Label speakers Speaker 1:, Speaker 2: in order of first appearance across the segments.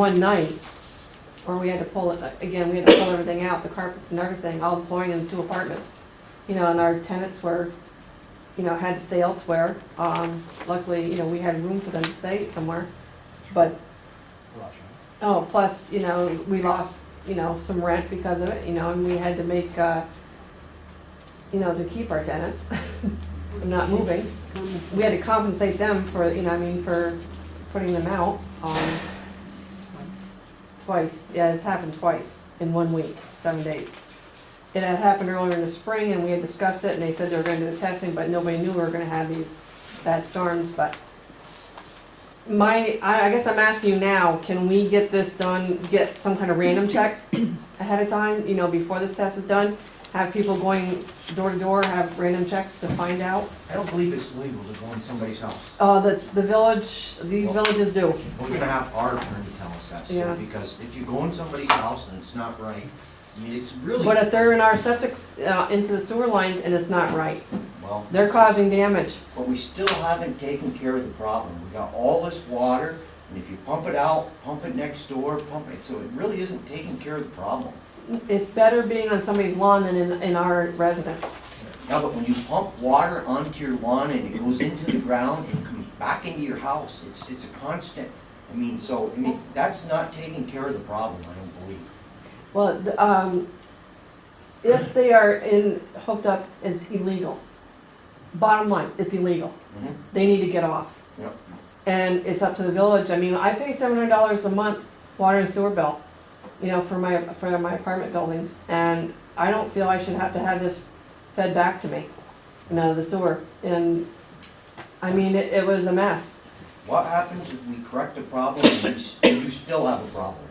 Speaker 1: one night, or we had to pull it, again, we had to pull everything out, the carpets and everything, all the flooring in the two apartments. You know, and our tenants were, you know, had to stay elsewhere. Um, luckily, you know, we had room for them to stay somewhere. But, oh, plus, you know, we lost, you know, some rent because of it, you know, and we had to make, uh, you know, to keep our tenants from not moving. We had to compensate them for, you know, I mean, for putting them out. Um, Twice, yeah, it's happened twice in one week, seven days. It had happened earlier in the spring and we had discussed it and they said they were gonna do the testing, but nobody knew we were gonna have these bad storms, but my, I, I guess I'm asking you now, can we get this done, get some kind of random check ahead of time, you know, before this test is done? Have people going door to door, have random checks to find out?
Speaker 2: I don't believe it's legal to go in somebody's house.
Speaker 1: Uh, that's, the village, these villages do.
Speaker 2: We're gonna have our attorney tell us that,
Speaker 1: Yeah.
Speaker 2: so, because if you go in somebody's house and it's not right, I mean, it's really,
Speaker 1: But if they're in our septic, uh, into the sewer lines and it's not right,
Speaker 2: well.
Speaker 1: they're causing damage.
Speaker 2: But we still haven't taken care of the problem. We got all this water, and if you pump it out, pump it next door, pump it, so it really isn't taking care of the problem.
Speaker 1: It's better being on somebody's lawn than in, in our residence.
Speaker 2: Now, but when you pump water onto your lawn and it goes into the ground and comes back into your house, it's, it's a constant. I mean, so, I mean, that's not taking care of the problem, I don't believe.
Speaker 1: Well, the, um, if they are in, hooked up, it's illegal. Bottom line, it's illegal.
Speaker 2: Mhm.
Speaker 1: They need to get off.
Speaker 2: Yep.
Speaker 1: And it's up to the village. I mean, I pay seven hundred dollars a month water and sewer bill, you know, for my, for my apartment buildings. And I don't feel I should have to have this fed back to me, you know, the sewer. And, I mean, it, it was a mess.
Speaker 2: What happens if we correct the problem and you s- and you still have a problem?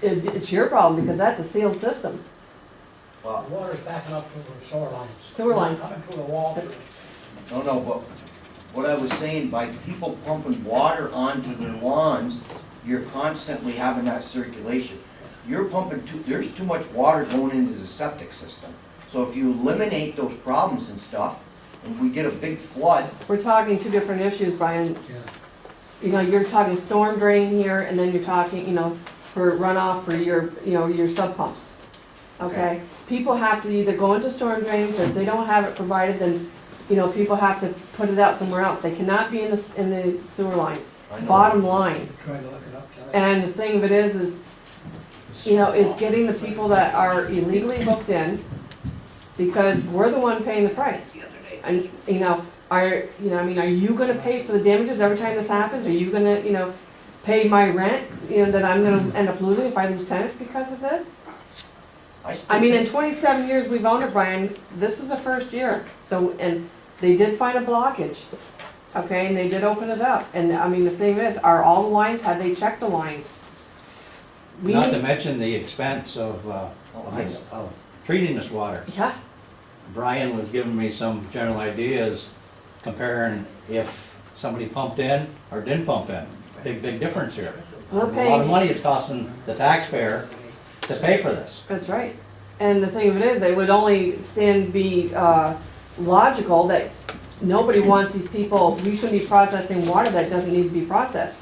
Speaker 1: It, it's your problem because that's a sealed system.
Speaker 2: Well,
Speaker 3: The water's backing up through the sewer lines.
Speaker 1: Sewer lines.
Speaker 3: Coming through the wall. through-
Speaker 2: No, no, but what I was saying, by people pumping water onto their lawns, you're constantly having that circulation. You're pumping too, there's too much water going into the septic system. So if you eliminate those problems and stuff, and we get a big flood,
Speaker 1: We're talking two different issues, Brian.
Speaker 3: Yeah.
Speaker 1: You know, you're talking storm drain here, and then you're talking, you know, for runoff for your, you know, your sub pumps. Okay? People have to either go into storm drains, or if they don't have it provided, then, you know, people have to put it out somewhere else. They cannot be in the, s- in the sewer lines,
Speaker 2: I know.
Speaker 1: bottom line.
Speaker 3: Tried to look it up. Kelly.
Speaker 1: And the thing of it is, is you know, is getting the people that are illegally hooked in, because we're the one paying the price. And, you know, are, you know, I mean, are you gonna pay for the damages every time this happens? Are you gonna, you know, pay my rent, you know, that I'm gonna end up losing if I lose tenants because of this?
Speaker 2: still
Speaker 1: I mean, in
Speaker 2: think-
Speaker 1: twenty-seven years we've owned it, Brian, this is the first year, so, and they did find a blockage, okay, and they did open it up, and, I mean, the thing is, are all the lines, have they checked the lines? We
Speaker 4: Not
Speaker 1: need-
Speaker 4: to mention the expense of, uh,
Speaker 2: Oh, nice.
Speaker 4: of treating this water.
Speaker 1: Yeah,
Speaker 4: Brian was giving me some general ideas comparing if somebody pumped in or didn't pump in. Big, big difference here.
Speaker 1: We're
Speaker 4: A lot of
Speaker 1: paying-
Speaker 4: money is costing the taxpayer to pay for this.
Speaker 1: That's right. And the thing of it is, it would only stand be uh, logical that nobody wants these people, we shouldn't be processing water that doesn't need to be processed.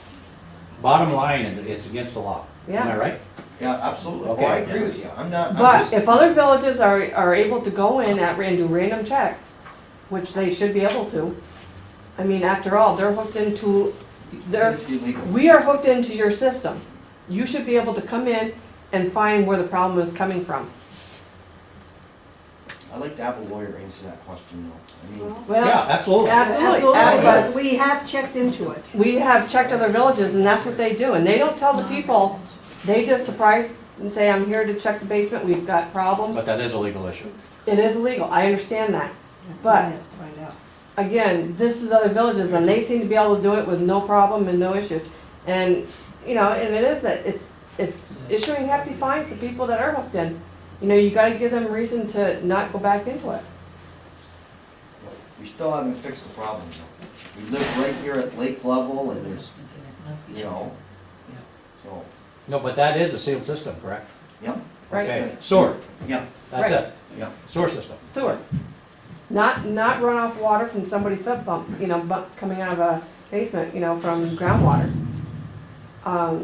Speaker 4: Bottom line, it- it's against the law. Am
Speaker 1: Yeah.
Speaker 4: I right?
Speaker 2: Yeah, absolutely. Oh, I agree with you. I'm not, I'm
Speaker 1: But
Speaker 2: just-
Speaker 1: if other villages are, are able to go in at, and do random checks, which they should be able to, I mean, after all, they're hooked into, they're,
Speaker 2: It's illegal.
Speaker 1: we are hooked into your system. You should be able to come in and find where the problem is coming from.
Speaker 2: I'd like to have a lawyer answer that question though. I mean,
Speaker 4: Yeah,
Speaker 1: Well,
Speaker 4: absolutely.
Speaker 1: absolutely,
Speaker 5: Absolutely,
Speaker 1: absolutely.
Speaker 5: but we have checked into it.
Speaker 1: We have checked other villages and that's what they do, and they don't tell the people, they just surprise and say, I'm here to check the basement, we've got problems.
Speaker 4: But that is a legal issue.
Speaker 1: It is illegal, I understand that. But-
Speaker 5: Find out.
Speaker 1: Again, this is other villages and they seem to be able to do it with no problem and no issues. And, you know, and it is that, it's, it's issuing hefty fines to people that are hooked in. You know, you gotta give them reason to not go back into it.
Speaker 2: we still haven't fixed the problem though. We live right here at lake level and there's, you know, so,
Speaker 4: No, but that is a sealed system, correct?
Speaker 2: yep,
Speaker 1: Right.
Speaker 4: Okay, sewer,
Speaker 2: yep,
Speaker 4: that's
Speaker 1: Right.
Speaker 4: it,
Speaker 2: yep.
Speaker 4: sewer system.
Speaker 1: sewer. Not, not runoff water from somebody's sub pumps, you know, bu- coming out of a basement, you know, from groundwater. Um,